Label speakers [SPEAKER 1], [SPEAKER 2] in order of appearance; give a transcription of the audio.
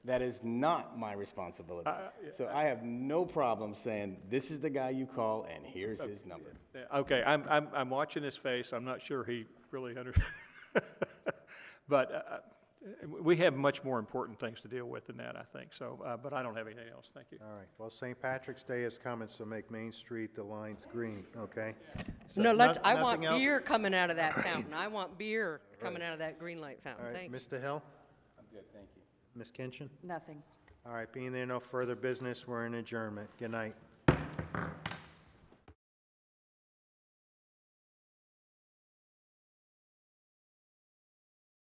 [SPEAKER 1] That is not my responsibility. So I have no problem saying, this is the guy you call and here's his number.
[SPEAKER 2] Yeah, Okay, I'm, I'm, I'm watching his face, I'm not sure he really under, but, uh, uh, we have much more important things to deal with than that, I think, so, uh, but I don't have anything else, thank you.
[SPEAKER 3] All right, well, St. Patrick's Day is coming, so make Main Street the lines green, okay? So
[SPEAKER 4] No, let's,
[SPEAKER 3] noth-
[SPEAKER 4] I want
[SPEAKER 3] nothing else?
[SPEAKER 4] beer coming out of that fountain. I want beer coming out of that green light
[SPEAKER 3] All
[SPEAKER 4] fountain.
[SPEAKER 3] right,
[SPEAKER 4] Thank you.
[SPEAKER 3] Mr. Hill,
[SPEAKER 1] I'm good, thank you.
[SPEAKER 3] Ms. Kinchin?
[SPEAKER 5] Nothing.
[SPEAKER 3] All right, being there no further business, we're in adjournment. Good night.